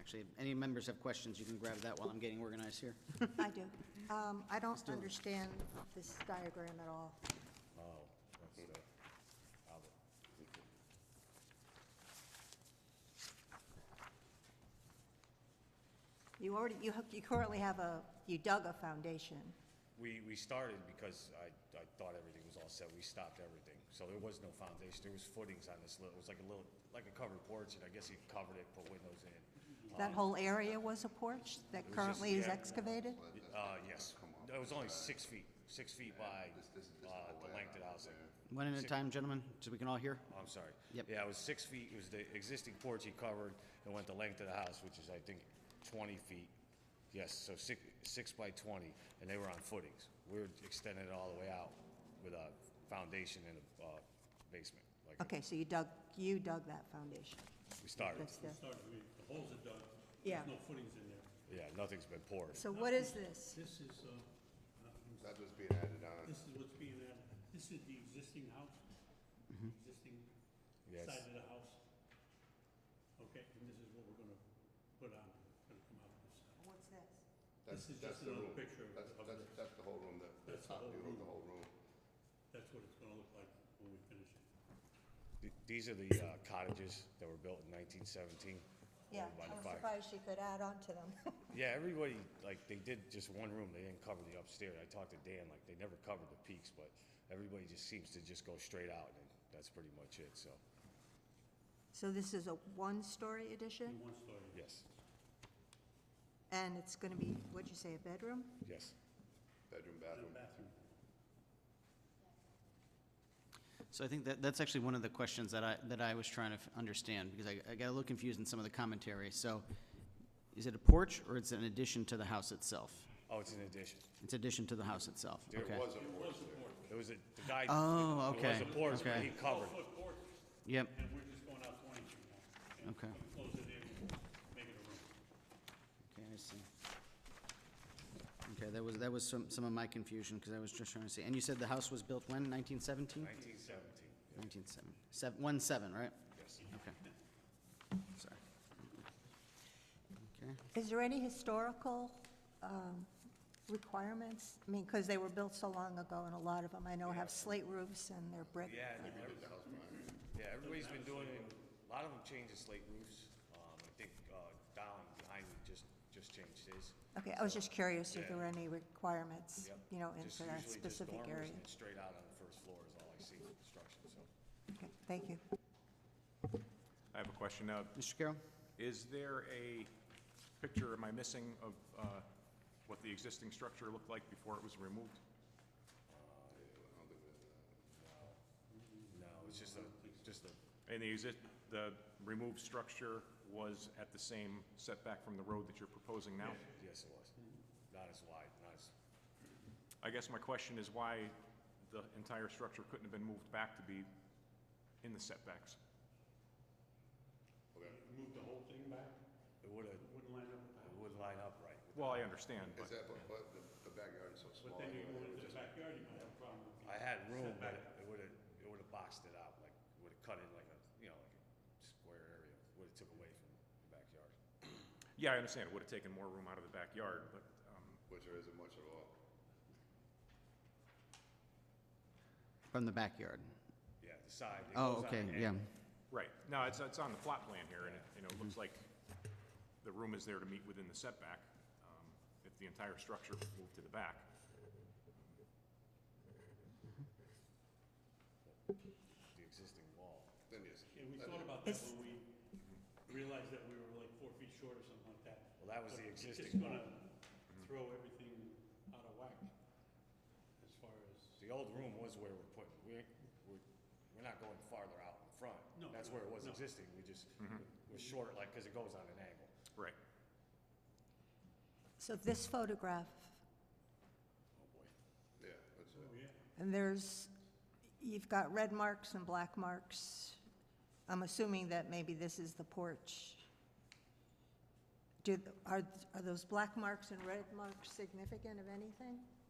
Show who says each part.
Speaker 1: Actually, any members have questions, you can grab that while I'm getting organized here.
Speaker 2: I do. Um, I don't understand this diagram at all.
Speaker 3: Oh,
Speaker 2: You already, you hook- you currently have a, you dug a foundation.
Speaker 3: We, we started because I, I thought everything was all set, we stopped everything, so there was no foundation, there was footings on this little, it was like a little, like a covered porch, and I guess he covered it, put windows in.
Speaker 2: That whole area was a porch that
Speaker 3: was just-
Speaker 2: currently is
Speaker 3: yeah.
Speaker 2: excavated?
Speaker 3: Uh, yes, it was only six feet, six feet by, uh, the length of the house, like
Speaker 1: One at a time, gentlemen, so we can all hear.
Speaker 3: Oh, I'm sorry.
Speaker 1: Yep.
Speaker 3: Yeah, it was six feet, it was the existing porch he covered, and went the length of the house, which is, I think, twenty feet. Yes, so six, six by twenty, and they were on footings. We were extending it all the way out with a foundation and a, uh, basement, like
Speaker 2: Okay, so you dug, you dug that foundation.
Speaker 3: we started.
Speaker 2: That's the,
Speaker 4: Started, I mean, the holes are dug.
Speaker 2: Yeah.
Speaker 4: There's no footings in there.
Speaker 3: Yeah, nothing's been poured.
Speaker 2: so what is this?
Speaker 4: This is, uh, uh,
Speaker 5: That was being added on.
Speaker 4: this is what's being added. This is the existing house, existing
Speaker 3: Yes.
Speaker 4: side of the house. Okay, and this is what we're gonna put on, gonna come out of this side.
Speaker 2: What's this?
Speaker 4: This
Speaker 5: That's-
Speaker 4: is just
Speaker 5: that's the
Speaker 4: another
Speaker 5: room.
Speaker 4: picture of-
Speaker 5: That's,
Speaker 4: of
Speaker 5: that's,
Speaker 4: this.
Speaker 5: that's the whole room, the- the
Speaker 4: That's the
Speaker 5: top
Speaker 4: whole
Speaker 5: view of
Speaker 4: room.
Speaker 5: the whole room.
Speaker 4: That's what it's gonna look like when we finish it.
Speaker 3: Th- These are the uh, cottages that were built in nineteen seventeen.
Speaker 2: Yeah,
Speaker 3: by the
Speaker 2: I'm
Speaker 3: fire.
Speaker 2: surprised you could add on to them.
Speaker 3: Yeah, everybody, like, they did just one room, they didn't cover the upstairs. I talked to Dan, like, they never covered the peaks, but everybody just seems to just go straight out, and that's pretty much it, so,
Speaker 2: So this is a one-story addition?
Speaker 4: In one story.
Speaker 3: yes,
Speaker 2: And it's gonna be, what'd you say, a bedroom?
Speaker 3: yes.
Speaker 5: Bedroom,
Speaker 4: The
Speaker 5: bathroom.
Speaker 4: bathroom.
Speaker 1: So I think that, that's actually one of the questions that I, that I was trying to f- understand, because I, I got a little confused in some of the commentary. So is it a porch or it's an addition to the house itself?
Speaker 3: Oh, it's an addition.
Speaker 1: It's addition to the house itself,
Speaker 3: There
Speaker 1: okay.
Speaker 5: was a porch there.
Speaker 3: It was a, the guy.
Speaker 1: Oh,
Speaker 3: It was
Speaker 1: okay,
Speaker 3: a porch, but
Speaker 1: okay.
Speaker 3: he covered.
Speaker 4: Foot porch,
Speaker 1: Yep,
Speaker 4: and we're just going out twenty feet now. and
Speaker 1: Okay.
Speaker 4: Close it in, make it a
Speaker 1: okay,
Speaker 4: room.
Speaker 1: I see. Okay, that was, that was some, some of my confusion, because I was just trying to see. And you said the house was built when, nineteen seventeen?
Speaker 3: Nineteen seventeen,
Speaker 1: Nineteen seven, seven, one seven, right?
Speaker 3: yes.
Speaker 1: Okay. Sorry. Okay.
Speaker 2: Is there any historical um, requirements? I mean, because they were built so long ago, and a lot of them, I know, have slate roofs and they're brick.
Speaker 3: Yeah, and every- yeah, everybody's been doing, it. a lot of them changed the slate roofs. Um, I think, uh, Don behind me just, just changed his.
Speaker 2: Okay, I was just curious if there
Speaker 3: Yeah.
Speaker 2: were any requirements,
Speaker 3: Yep.
Speaker 2: you know, in
Speaker 3: Just
Speaker 2: for that
Speaker 3: usually just
Speaker 2: specific area.
Speaker 3: dormers and Straight out on the first floor is all I see with construction, so.
Speaker 2: Okay, Thank you.
Speaker 6: I have a question now.
Speaker 1: Mr. Carroll?
Speaker 6: Is there a picture, am I missing, of uh, what the existing structure looked like before it was removed?
Speaker 3: No, it's just a, just a,
Speaker 6: And the exist, the removed structure was at the same setback from the road that you're proposing now?
Speaker 3: yes, it was. Not as wide, not as,
Speaker 6: I guess my question is why the entire structure couldn't have been moved back to be in the setbacks?
Speaker 4: Move the whole thing back,
Speaker 3: it would've,
Speaker 4: it wouldn't line up with the
Speaker 3: it
Speaker 4: house.
Speaker 3: wouldn't line up right.
Speaker 6: Well, I understand,
Speaker 5: Is
Speaker 6: but,
Speaker 5: that, but, but the- the backyard is so small.
Speaker 4: But then you go
Speaker 5: anyway, it
Speaker 4: into the
Speaker 5: just-
Speaker 4: backyard, you might have a problem with the.
Speaker 3: I had room, but it would've, it would've boxed it out, like, would've cut it like a, you know, like a square area, would've took away from the backyard.
Speaker 6: yeah, I understand, it would have taken more room out of the backyard, but, um,
Speaker 5: Which there isn't much at all.
Speaker 1: From the backyard?
Speaker 3: Yeah, the side. it
Speaker 1: Oh,
Speaker 3: goes on
Speaker 1: okay,
Speaker 3: the
Speaker 1: yeah.
Speaker 3: end.
Speaker 6: right, no, it's, it's on the plot plan here, and it, you know, it looks like the room is there to meet within the setback, um, if the entire structure was moved to the back.
Speaker 3: The existing wall.
Speaker 5: Then yes.
Speaker 4: Yeah, we thought about that when we realized that we were like four feet short or something like that.
Speaker 3: Well, that was
Speaker 4: But
Speaker 3: the
Speaker 4: it's just
Speaker 3: existing
Speaker 4: gonna Throw everything out of whack as far as,
Speaker 3: The old room was where we're putting, we're, we're, we're not going farther out in front.
Speaker 4: No,
Speaker 3: That's where it was
Speaker 4: no.
Speaker 3: existing, we just, we're short, like, cause it goes on an angle.
Speaker 6: Right.
Speaker 2: So this photograph,
Speaker 3: Oh, boy.
Speaker 5: Yeah, that's
Speaker 4: oh
Speaker 5: it.
Speaker 4: yeah,
Speaker 2: and there's, you've got red marks and black marks. I'm assuming that maybe this is the porch. Do, are, are those black marks and red marks significant of anything?
Speaker 4: oh,